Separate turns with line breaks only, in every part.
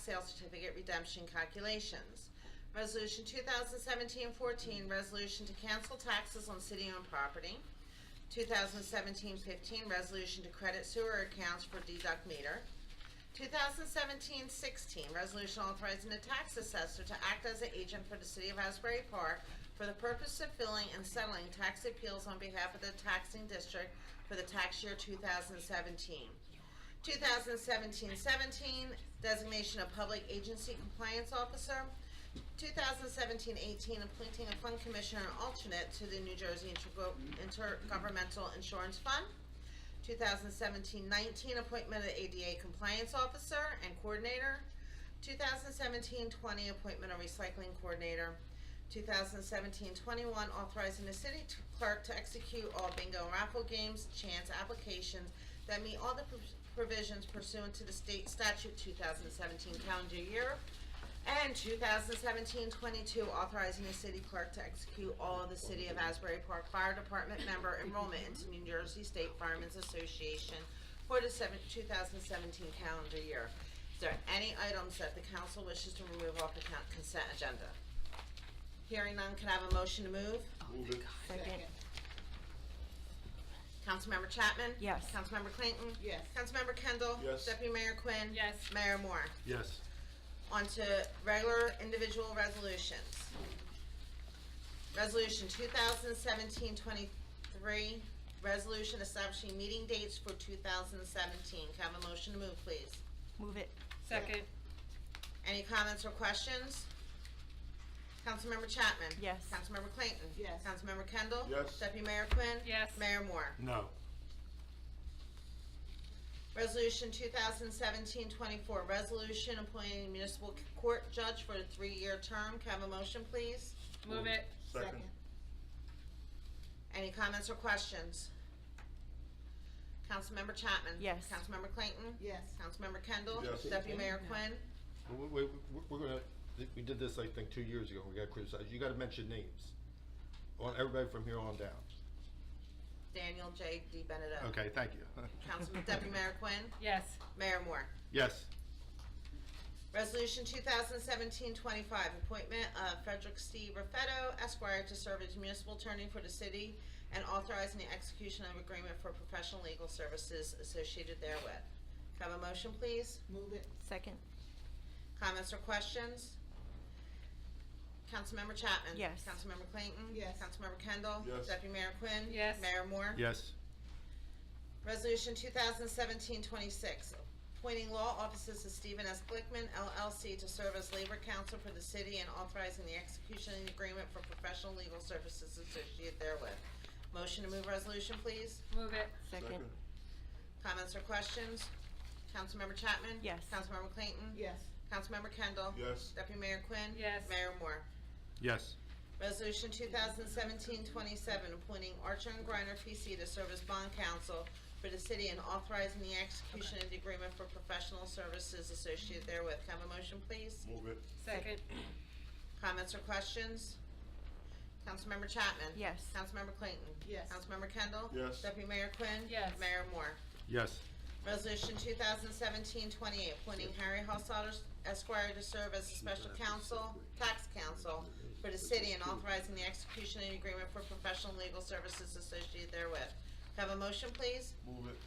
sale certificate redemption calculations. Resolution 2017-14, resolution to cancel taxes on city-owned property. 2017-15, resolution to credit sewer accounts for deduct meter. 2017-16, resolution authorizing the tax assessor to act as an agent for the city of Asbury Park for the purpose of filling and settling tax appeals on behalf of the taxing district for the tax year 2017. 2017-17, designation of public agency compliance officer. 2017-18, appointing a fund commissioner and alternate to the New Jersey Intergo- Intergovernmental Insurance Fund. 2017-19, appointment of ADA compliance officer and coordinator. 2017-20, appointment of recycling coordinator. 2017-21, authorizing the city t- clerk to execute all bingo and raffle games, chance applications that meet all the pr- provisions pursuant to the state statute 2017 calendar year. And 2017-22, authorizing the city clerk to execute all of the City of Asbury Park Fire Department member enrollment into New Jersey State Firemen's Association for the seven- 2017 calendar year. Is there any items that the council wishes to remove off the con- consent agenda? Hearing none, can I have a motion to move?
Move it.
Second.
Councilmember Chapman?
Yes.
Councilmember Clayton?
Yes.
Councilmember Kendall?
Yes.
Deputy Mayor Quinn?
Yes.
Mayor Moore?
Yes.
On to regular individual resolutions. Resolution 2017-23, resolution establishing meeting dates for 2017. Can I have a motion to move, please?
Move it.
Second.
Any comments or questions? Councilmember Chapman?
Yes.
Councilmember Clayton?
Yes.
Councilmember Kendall?
Yes.
Deputy Mayor Quinn?
Yes.
Mayor Moore?
No.
Resolution 2017-24, resolution appointing municipal court judge for a three-year term. Can I have a motion, please?
Move it.
Second.
Any comments or questions? Councilmember Chapman?
Yes.
Councilmember Clayton?
Yes.
Councilmember Kendall?
Yes.
Deputy Mayor Quinn?
We, we, we- we're gonna, we did this, I think, two years ago, we got criticized, you gotta mention names. On, everybody from here on down.
Daniel J. D.
Oh.
Benedetto?
Okay, thank you.
Councilman, Deputy Mayor Quinn?
Yes.
Mayor Moore?
Yes,
Resolution 2017-25, appointment of Frederick C. Raffetto Esquire to serve as municipal attorney for the city and authorizing the execution of agreement for professional legal services associated therewith. Can I Have a motion, please?
Move it,
Second.
Comments or questions? Councilmember Chapman?
Yes.
Councilmember Clayton?
Yes.
Councilmember Kendall?
Yes.
Deputy Mayor Quinn?
Yes.
Mayor Moore?
yes,
Resolution 2017-26, appointing law offices to Stephen S. Blickman LLC to serve as labor counsel for the city and authorizing the execution of the agreement for professional legal services associated therewith. Motion to move resolution, please.
Move it.
Second.
Comments or questions? Councilmember Chapman?
Yes.
Councilmember Clayton?
yes,
Councilmember Kendall?
Yes.
Deputy Mayor Quinn?
Yes.
Mayor Moore?
yes,
Resolution 2017-27, appointing Archer and Griner P.C. to serve as bond counsel for the city and authorizing the execution of the agreement for professional services associated therewith. Can I have a motion, please?
Move it.
Second.
Comments or questions? Councilmember Chapman?
Yes.
Councilmember Clayton?
Yes.
Councilmember Kendall?
Yes.
Deputy Mayor Quinn?
Yes.
Mayor Moore?
yes,
Resolution 2017-28, appointing Harry Hossotter Esquire to serve as a special counsel, tax counsel for the city and authorizing the execution of an agreement for professional legal services associated therewith. Have a motion, please?
Move it.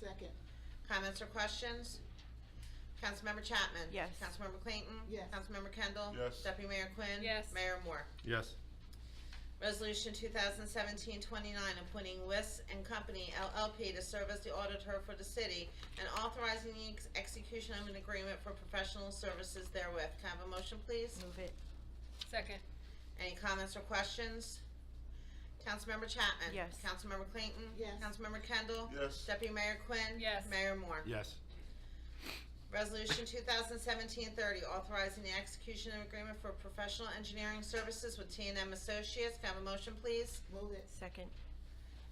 second,
Comments or questions? Councilmember Chapman?
Yes.
Councilmember Clayton?
Yes.
Councilmember Kendall?
Yes.
Deputy Mayor Quinn?
Yes.
Mayor Moore?
yes,
Resolution 2017-29, appointing West and Company LLP to serve as the auditor for the city and authorizing the ex- execution of an agreement for professional services therewith. Can I have a motion, please?
Move it.
Second.
Any comments or questions? Councilmember Chapman?
Yes.
Councilmember Clayton?
Yes.
Councilmember Kendall?
Yes.
Deputy Mayor Quinn?
Yes.
Mayor Moore?
yes,
Resolution 2017-30, authorizing the execution of agreement for professional engineering services with t and m Associates. Can I have a motion, please?
move it,
Second.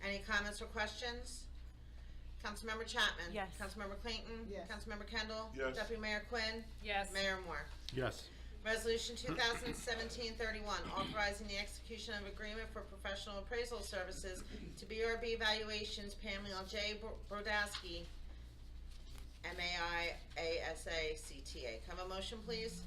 Any comments or questions? Councilmember Chapman?
Yes.
Councilmember Clayton?
Yes.
Councilmember Kendall?
Yes.
Deputy Mayor Quinn?
Yes.
Mayor Moore?
yes,
Resolution 2017-31, authorizing the execution of agreement for professional appraisal services to BRB Valuations, Pamela J. Brodowski, M A I A S A C T A. Come a motion, please?